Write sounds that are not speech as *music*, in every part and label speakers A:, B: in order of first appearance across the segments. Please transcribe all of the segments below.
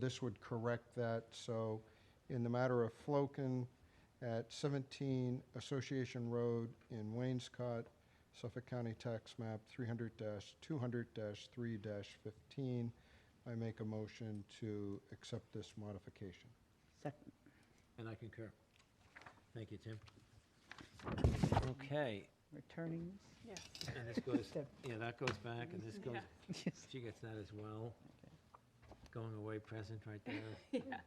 A: This would correct that, so in the matter of Floken at 17 Association Road in Waynescott, Suffolk County Tax Map 300-200-3-15, I make a motion to accept this modification.
B: Second.
C: And I concur. Thank you, Tim. Okay,
B: Returning
D: Yes.
C: and this
B: *laughs*
C: goes,
B: Tim.
C: yeah, that goes back, and this goes,
B: this? Yes.
C: she gets that as well. Going away present right there. *laughs*
D: *laughs*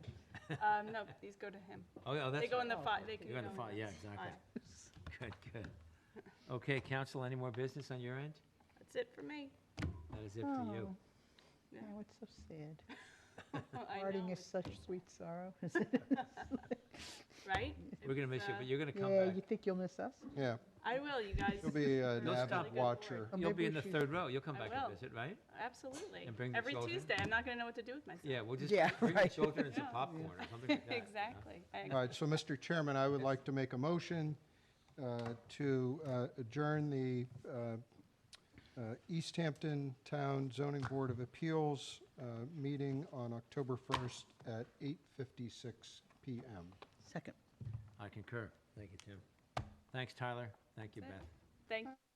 D: Um, no, these go to him.
C: Oh, yeah, that's.
D: They go in the
C: right.
D: file, they can
C: You
D: go
C: got the
D: in
C: file, yeah,
D: this.
C: exactly.
D: Aye.
C: Good, good. Okay, council, any more business on your end?
D: That's it for
B: *laughs*
D: me.
C: That is it for you.
D: Yeah.
B: Oh, it's so sad.
D: I
B: Parting
D: know,
B: is such sweet
C: *laughs*
B: sorrow.
D: Right?
C: We're gonna miss you, but you're
D: uh,
C: gonna come
B: Yeah,
C: back.
B: you think you'll miss us?
A: Yeah,
D: I will, you guys.
A: you'll be an
D: Those
A: avid
D: really good
A: watcher.
B: Oh,
C: You'll
B: maybe
C: be
B: we
C: in the
B: should-
C: third row. You'll come
D: I
C: back
D: will.
C: and visit,
D: *laughs*
C: right?
D: Absolutely.
C: And bring the
D: Every
C: children.
D: Tuesday, I'm not gonna know what to do with myself.
C: Yeah, we'll just
B: Yeah,
C: bring the
B: right.
C: children and some
D: Yeah.
C: popcorn or something
D: *laughs*
C: like that. you know?
D: Exactly. I
A: All right, so Mr. Chairman, I would
C: Yes.
A: like to make a motion uh, to uh, adjourn the uh, uh, East Hampton Town Zoning Board of Appeals uh, meeting on October 1st at 8:56 PM.
B: Second.
C: I concur. Thank you, Tim. Thanks, Tyler. Thank you,
D: That's it.
C: Beth.
D: Thank